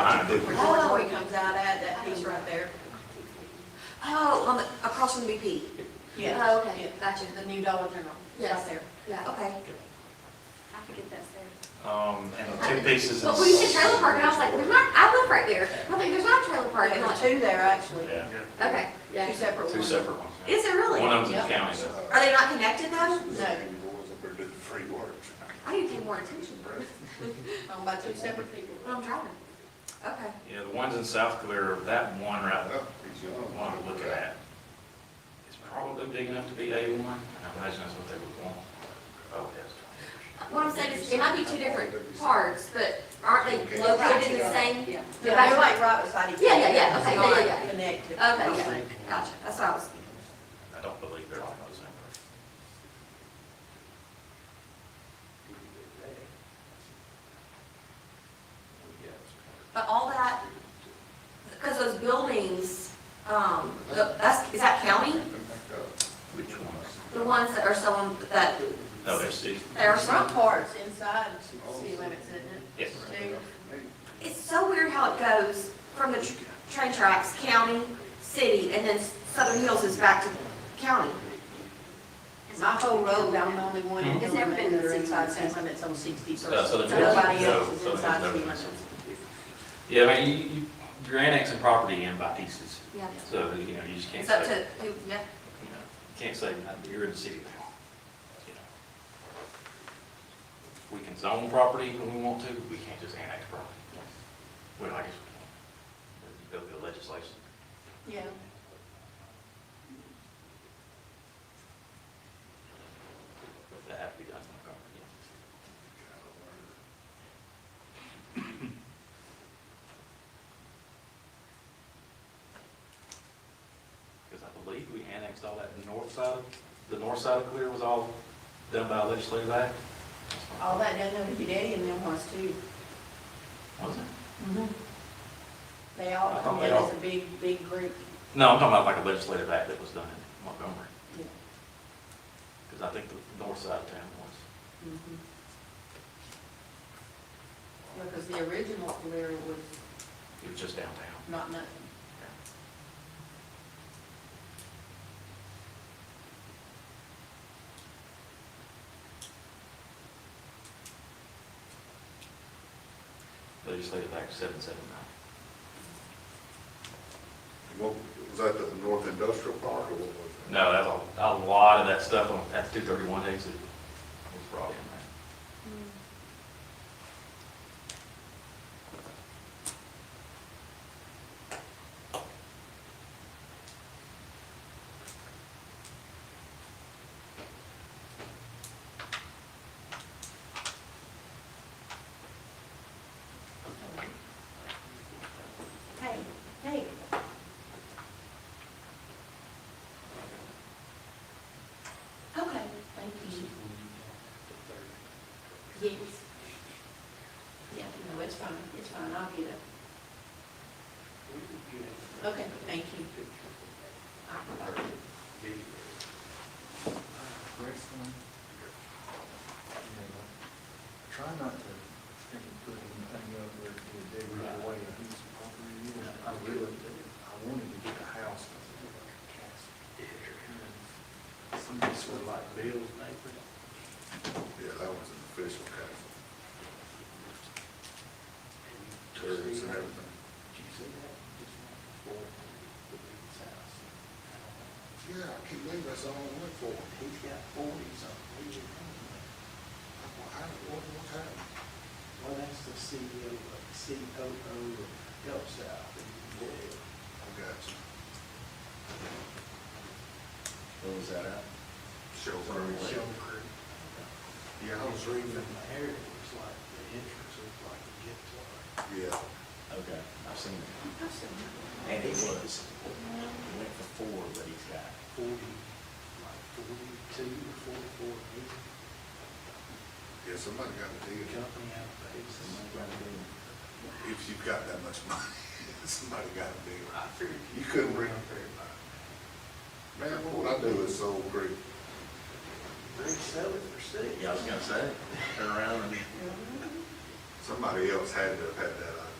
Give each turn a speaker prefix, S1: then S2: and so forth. S1: Where Tortoy comes out at, that piece right there. Oh, on the, across from the BP.
S2: Yeah,
S1: Oh, okay, gotcha.
S2: the new Dollar General,
S1: Yes.
S2: right there.
S1: Yeah, okay.
S3: I forget that's there.
S4: Um, and two pieces.
S3: But
S4: is-
S3: when you said trailer park, and I was like, there's not, I live right there. I think there's not a trailer park.
S1: Right,
S3: I'm
S1: there's
S3: like,
S1: two there, actually.
S4: Yeah,
S3: Okay,
S1: Two
S3: yeah.
S1: separate ones.
S4: two separate ones. yeah.
S1: Is it really?
S4: One of them's in
S2: Yep.
S4: the county, so.
S1: Are they not connected though? I need to pay more attention,
S2: owned by two separate people.
S1: when I'm driving. Okay.
S4: Yeah, the ones in South Clear, that one right, the one I'm looking at, is probably big enough to be A1. I imagine that's what they would want. Oh, yes.
S3: What I'm saying is, it might be two different parts, but aren't they located in the same?
S2: Yeah.
S3: The
S1: Yeah, they're
S3: back-
S1: like right beside each other.
S3: Yeah, yeah, yeah, okay, yeah, yeah,
S1: Not
S3: yeah.
S1: Connected.
S3: Okay, yeah, gotcha. That's what I was,
S4: I don't believe they're on those numbers.
S1: But all that, because those buildings, um, the- that's, is that county?
S4: Which ones?
S1: The ones that are selling, that,
S4: No, there's the,
S1: that are
S2: Front
S1: from?
S2: part's inside city limits, isn't
S4: yes.
S2: it?
S1: It's so weird how it goes from the tr- train tracks, county, city, and then Southern Hills is back to county.
S2: Two. My whole road, I'm the only one in
S3: It's
S2: the
S3: never been
S2: limit, or
S3: six
S2: inside
S3: months.
S2: city limits on sixty-first.
S4: Yeah, Uh, so there's
S2: Nobody
S4: no-
S2: else is
S4: no, so
S2: inside
S4: there's
S2: city
S4: no-
S2: limits.
S4: Yeah, I mean, you, you- you're annexing property in by pieces,
S1: Yeah.
S4: so, you know, you just can't
S1: It's up
S4: say,
S1: to, who- yeah.
S4: you know, can't say nothing, you're in the city now. you know. We can zone property when we want to, we can't just annex property. Well, I guess we can. Go through the legislation.
S2: Yeah.
S4: That have to be done. Because I believe we annexed all that north side, of- the north side of Clear was all done by a legislative act.
S2: All that down there with your daddy and them ones too.
S4: Was it?
S2: Mm-hmm. They all
S4: I
S2: come
S4: thought they
S2: in as
S4: all-
S2: a big, big group.
S4: No, I'm talking about like a legislative act that was done in Montgomery.
S2: Yeah.
S4: Because I think the north side of town was.
S2: Mhm. Because the original Calera was
S4: It was just downtown.
S2: not nothing.
S4: Legislative Act seven seven nine.
S5: Was that the North Industrial Park or what was that?
S4: No, that's a, a lot of that stuff on, that's two thirty-one exit was brought in there.
S2: Hey, hey. Okay, thank you. Yes. Yeah, no, it's fine, it's fine, I'll get it. Okay, thank you.
S6: Try not to think of putting anything up where it would dig right away a piece of property. you know. I really, I wanted to get a house. but I didn't like a castle. And Somebody sort of like Bill's neighbor.
S5: Yeah, that was an official castle, turrets and everything. Yeah, I can't believe that's all I went for.
S6: He's got forty something.
S5: I don't know what happened.
S6: Well, that's the E CEO, of- COO of Gulf South. and,
S5: I got you.
S6: uh, What was that at?
S5: Show her.
S6: Shell Creek.
S5: Yeah, I was reading.
S6: From the area, it was like, the entrance looked like a gift line.
S5: Yeah.
S7: Okay, I've seen it. And he was, he went for four, but he's got,
S6: Forty, like forty-two, or forty-four million.
S5: Yeah, somebody got to
S6: The
S5: dig it up.
S6: company out of
S7: some
S6: Texas.
S7: money right there.
S5: If you've got that much money, somebody got to dig it up. You couldn't bring up everybody. Man, what would I do with Soul Creek?
S6: They sell it for six.
S7: Yeah, I was gonna say, turn around and
S5: Somebody else had to have had that idea.